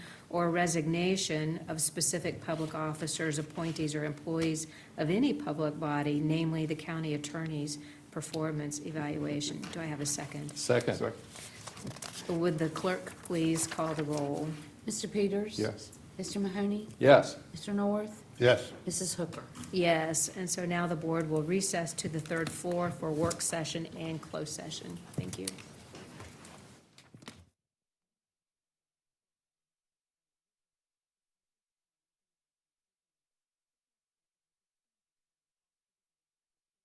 or resignation of specific public officers, appointees, or employees of any public body, namely the county attorney's performance evaluation. Do I have a second? Second, Would the clerk please call the roll? Mr. Peters? yes. Mr. Mahoney? Yes. Mr. North? Yes. Mrs. Hooker? Yes, and so now the board will recess to the third floor for work session and closed session. Thank you.